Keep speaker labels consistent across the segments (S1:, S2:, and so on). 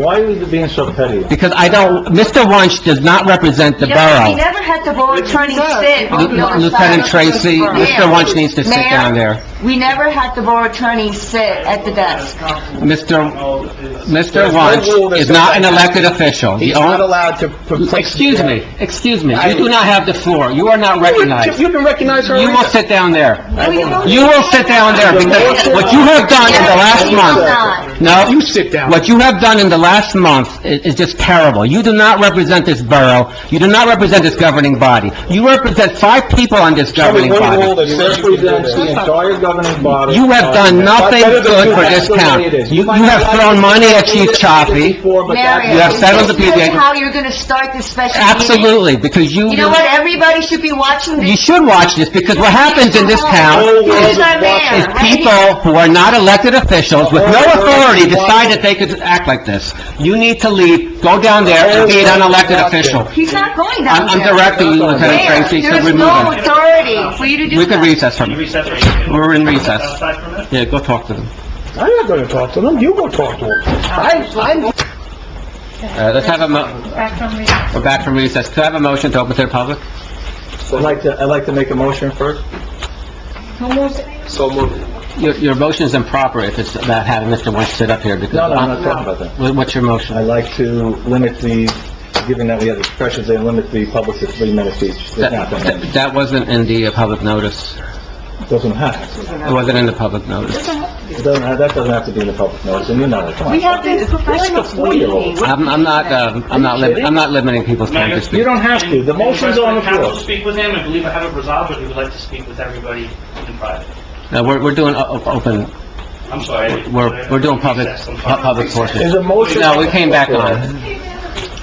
S1: Why is it being so petty?
S2: Because I don't, Mr. Wunsch does not represent the
S3: Just- He
S2: borough.
S3: never had the borough attorney sit on the
S2: L-
S3: other
S2: Lieutenant
S3: side of the
S2: Tracy,
S3: borough.
S2: Mr.
S3: Ma'am,
S2: Wunsch needs to sit
S3: ma'am,
S2: down there.
S3: We never had the borough attorney sit at the desk.
S2: Mr. Mr.
S1: Oh, There's no rule
S2: Wunsch
S1: that
S2: is
S1: says
S2: not an
S1: that.
S2: elected official. The
S1: He's not
S2: only-
S1: allowed to...
S2: Excuse me, excuse me,
S1: I-
S2: you do not have the floor, you are not recognized.
S1: You've been recognized
S2: You
S1: already.
S2: will sit down there.
S3: No, you don't.
S2: You will sit down there, because what you have done in the last
S3: You will
S2: month... No,
S1: You sit down.
S2: What you have done in the last month i- is just terrible. You do not represent this borough, you do not represent this governing body. You represent five people on this
S1: Tell me
S2: governing
S1: one rule
S2: body.
S1: that represents the entire governing body.
S2: You have done nothing good for this town. You- you have thrown money at Chief Chaffee.
S3: Mary,
S2: You have settled the
S3: this is
S2: PBA.
S3: how you're gonna start this special meeting.
S2: Absolutely, because you...
S3: You know what? Everybody should be watching this.
S2: You should watch this, because what happens in this town
S3: Who's our mayor?
S2: is
S3: Right here.
S2: people who are not elected officials with no authority decide that they could act like this. You need to leave, go down there and be an unelected official.
S3: He's not going down
S2: I'm
S3: there.
S2: I'm directing you, Lieutenant
S3: Mayor,
S2: Tracy, to
S3: there's
S2: remove
S3: no
S2: him.
S3: authority for you to do
S2: We could
S3: that.
S2: recess from,
S4: Recess right here.
S2: we're in recess.
S4: Outside for a minute.
S2: Yeah, go talk to them.
S1: I'm not gonna talk to them, you go talk to them. I,
S2: Uh, let's have a mo- We're back from recess. Could I have a motion to open to the public?
S1: I'd like to, I'd like to make a motion first. So moved.
S2: Your, your motion is improper if it's about having Mr. Wunsch sit up here because...
S1: No, no, I'm not talking about that.
S2: What- What's your motion?
S1: I'd like to limit the, given that we have expressions, they limit the public to three minutes each. There's not that many.
S2: That, that wasn't in the uh, public notice.
S1: Doesn't have,
S2: It wasn't in the public notice.
S1: it doesn't, have- that doesn't have to be in the public notice, and you know it, come on.
S3: We have this professional meeting.
S2: I'm, I'm not, um, I'm not, lim- I'm not limiting people's time to
S1: You
S2: speak.
S1: don't have to, the motion's on the
S4: Council
S1: floor.
S4: speak with him, I believe I have it resolved, but he would like to speak with everybody in private.
S2: No, we're, we're doing o- o- open,
S4: I'm sorry.
S2: we're, we're doing public,
S4: Recess, I'm
S2: pu-
S4: sorry.
S2: public portion.
S1: Is a motion...
S2: No, we came back on.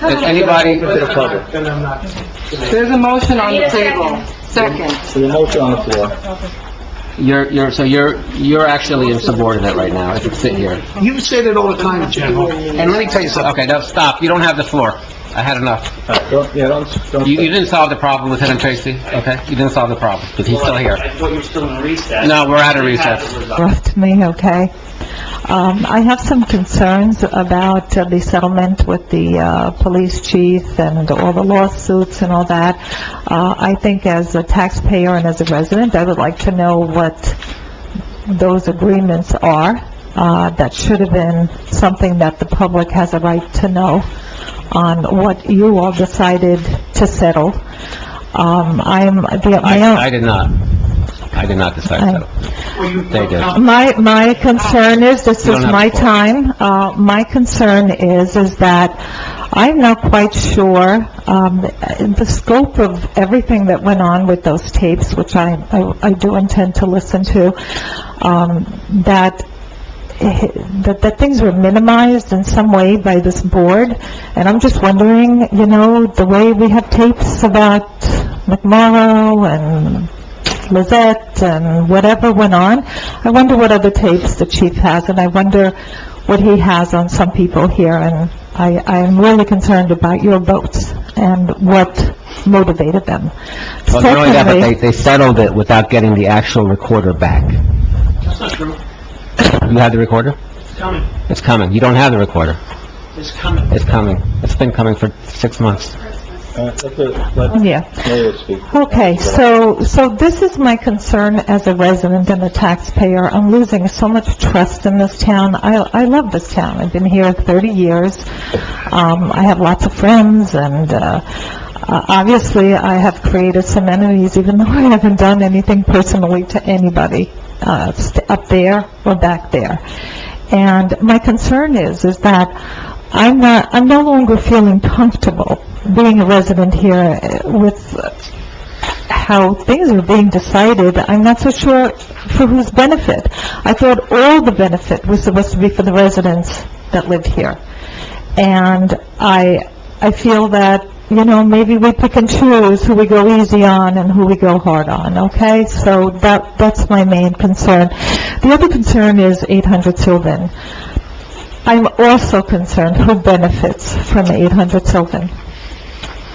S2: Does anybody,
S1: Open to the public.
S3: There's a motion on the table. Second.
S1: So the motion on the floor.
S2: you're, you're, so you're, you're actually insubordinate right now, if you sit here.
S5: You've said it all the time, General, and let me tell you something.
S2: Okay, no, stop. You don't have the floor. I had enough.
S1: All right, Don't, yeah, don't, don't...
S2: You, you didn't solve the problem, Lieutenant Tracy, okay? You didn't solve the problem, because he's still here.
S4: I thought you were still in recess.
S2: No, we're out of
S4: We have
S2: recess.
S4: it resolved.
S6: brought to me, okay? Um, I have some concerns about uh, the settlement with the uh, police chief and all the lawsuits and all that. Uh, I think as a taxpayer and as a resident, I would like to know what those agreements are. Uh, That should have been something that the public has a right to know on what you all decided to settle. Um, I'm, the, my
S2: I,
S6: own...
S2: I did not. I did not decide that. They did.
S6: My, my concern is, this
S2: Ah. You don't
S6: is
S2: have
S6: my
S2: the floor.
S6: time, uh, my concern is, is that I'm not quite sure, um, the scope of everything that went on with those tapes, which I, I I do intend to listen to, um, that that, that things were minimized in some way by this board, and I'm just wondering, you know, the way we have tapes about McMorrow and Lizette and whatever went on, I wonder what other tapes the chief has, and I wonder what he has on some people here, and I, I am really concerned about your votes and what motivated them.
S2: Well, not only that, but they,
S6: Secondly-
S2: they settled it without getting the actual recorder back.
S4: That's not true.
S2: You have the recorder?
S4: It's coming.
S2: It's coming. You don't have the recorder.
S4: It's coming.
S2: It's coming. It's been coming for six months.
S1: All right, uh, let the, let
S6: Yeah.
S1: Mayor speak.
S6: Okay, so, so this is my concern as a resident and a taxpayer. I'm losing so much trust in this town. I, I love this town. I've been here 30 years. Um, I have lots of friends and, uh, uh, obviously, I have created some enemies, even though I haven't done anything personally to anybody, uh, st- up there or back there. And my concern is, is that I'm not, I'm no longer feeling comfortable being a resident here uh, with uh, how things are being decided, I'm not so sure for whose benefit. I thought all the benefit was supposed to be for the residents that live here. And I, I feel that, you know, maybe we pick and choose who we go easy on and who we go hard on, okay? So that, that's my main concern. The other concern is 800 Sylvan. I'm also concerned who benefits from 800 Sylvan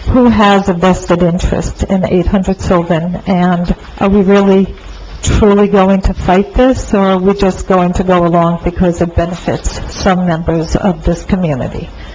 S6: who has a vested interest in 800 Sylvan, and are we really truly going to fight this, or are we just going to go along because it benefits some members of this community?